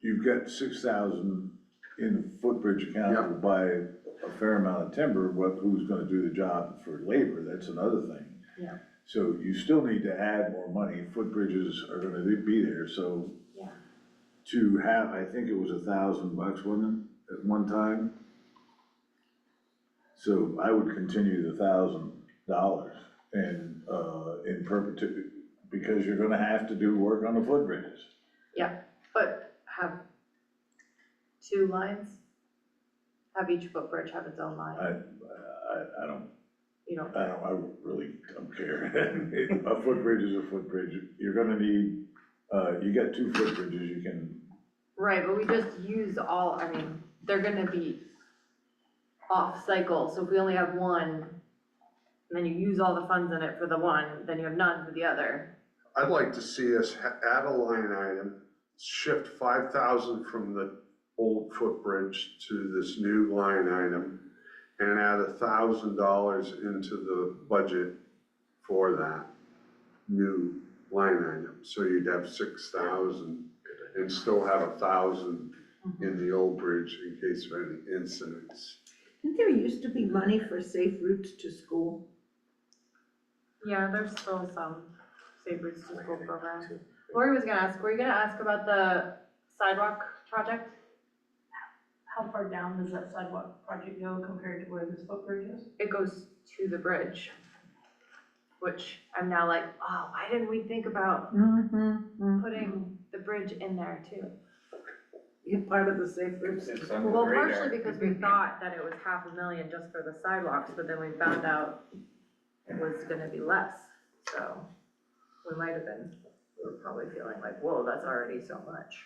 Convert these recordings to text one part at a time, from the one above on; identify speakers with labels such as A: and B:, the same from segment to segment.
A: you've got six thousand in the footbridge account
B: Yeah.
A: to buy a fair amount of timber, what, who's gonna do the job for labor, that's another thing.
C: Yeah.
A: So you still need to add more money, footbridges are gonna be there, so.
C: Yeah.
A: To have, I think it was a thousand bucks, wasn't it, at one time? So I would continue the thousand dollars and, uh, in perpetuity, because you're gonna have to do work on the footbridges.
C: But have two lines? Have each footbridge have its own
A: I,
C: line?
A: I, I don't,
C: You don't,
A: I don't, I really don't care. A footbridge is a footbridge, you're gonna need, uh, you got two footbridges, you can,
C: right, but we just use all, I mean, they're gonna be off cycle, so if we only have one, and then you use all the funds in it for the one, then you have none for the other.
B: I'd like to see us ha- add a line item, shift five thousand from the old footbridge to this new line item, and add a thousand dollars into the budget for that new line item. So you'd have six thousand and still have a thousand in the old bridge in case of any incidents.
D: Didn't there used to be money for safe routes to school?
C: Yeah, there's still some Safe Routes to School program. Lori was gonna ask, were you gonna ask about the sidewalk project?
E: How far down does that sidewalk project go compared to where this footbridge is?
C: it goes to the bridge, which I'm now like, oh, why didn't we think about
D: Mm-hmm.
C: putting the bridge in there too?
D: You're part of the safe routes. to
F: It's
D: school.
F: on the
C: Well,
F: radar.
C: partially because we thought that it was half a million just for the sidewalks, but then we found out it was gonna be less, so we might have been, we were probably feeling like, whoa, that's already so much.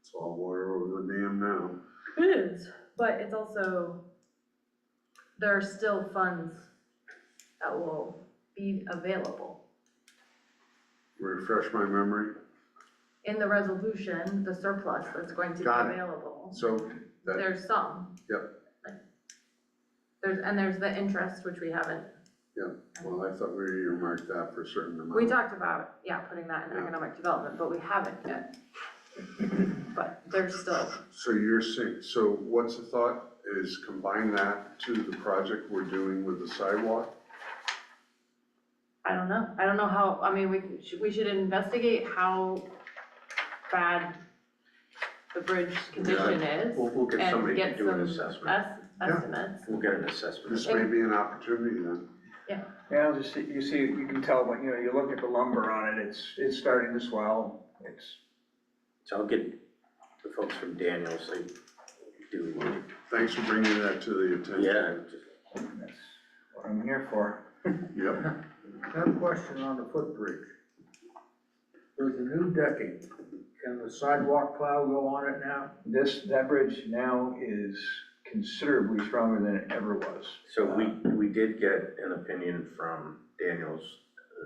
B: It's all water over the dam now.
C: It is, but it's also, there are still funds that will be available.
B: Refresh my memory.
C: in the resolution, the surplus that's going to be
B: Got it.
C: available,
B: So that-
C: there's some.
B: Yep.
C: There's, and there's the interest, which we haven't,
B: Well, I thought we earmarked that for a certain amount.
C: we talked about, yeah, putting that in
B: Yeah.
C: economic development, but we haven't yet. But there's still,
B: So you're saying, so what's the thought is combine that to the project we're doing with the sidewalk?
C: I don't know, I don't know how, I mean, we, should- we should investigate how bad the bridge condition is.
F: We'll, we'll get
C: And
F: somebody to
C: get
F: do an
C: some
F: assessment.
C: es- estimates.
F: We'll get an assessment.
B: This may be an opportunity then.
G: Yeah, just, see- you see, you can tell, but, you know, you look at the lumber on it, it's, it's starting to swell, it's,
F: So I'll get the folks from Daniels, they do,
B: Thanks for bringing that to the
F: yeah,
B: attention.
F: just
G: that's what I'm here for.
B: Yeah. Yep,
H: I have a question on the footbridge. For the new decking, can the sidewalk plow go on it now?
G: This, that bridge now is considerably stronger than it ever was.
F: So we, we did get an opinion from Daniels,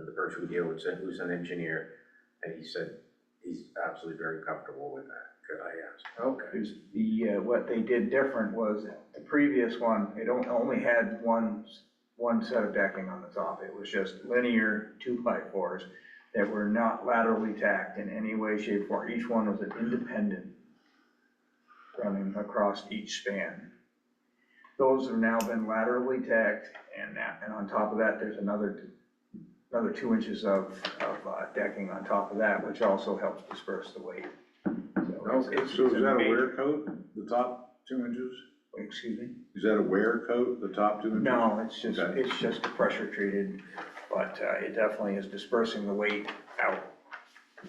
F: uh, the person we deal with, said- who's an engineer, and he said he's absolutely very comfortable with that, because I asked.
H: Okay.
G: Because the, uh, what they did different was, the previous one, it on- only had one, s- one set of decking on the top. It was just linear two-by-fours that were not laterally tacked in any way, shape, or each one was an independent running across each span. Those have now been laterally tacked, and that, and on top of that, there's another, t- another two inches of, of uh, decking on top of that, which also helps disperse the weight. So
A: so
G: it's- it's-
A: is
G: it's
A: that a
G: major-
A: wear coat, the top two inches?
G: Excuse me?
A: Is that a wear coat, the top two inches?
G: No, it's just,
A: Okay.
G: it's just pressure treated, but uh, it definitely is dispersing the weight out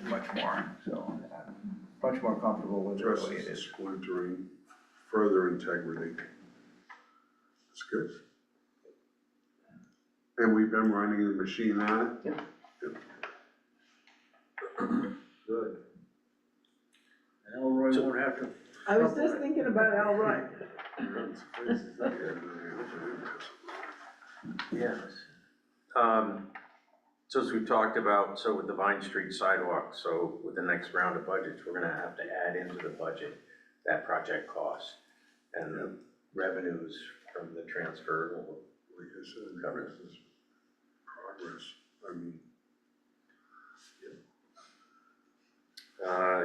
G: much more, so I'm much more comfortable with it the way
B: Addresses
G: it
B: the
G: is.
B: splintering, further integrity. That's good. And we've been running the machine on it?
H: Good. And Elroy won't have to,
D: I was just thinking about Al Roy.
F: Yes. Um, so as we talked about, so with the Vine Street sidewalk, so with the next round of budgets, we're gonna have to add into the budget that project cost and the revenues from the transfer will
B: Like I said,
F: Progress.
B: this is progress. I mean,
F: Uh,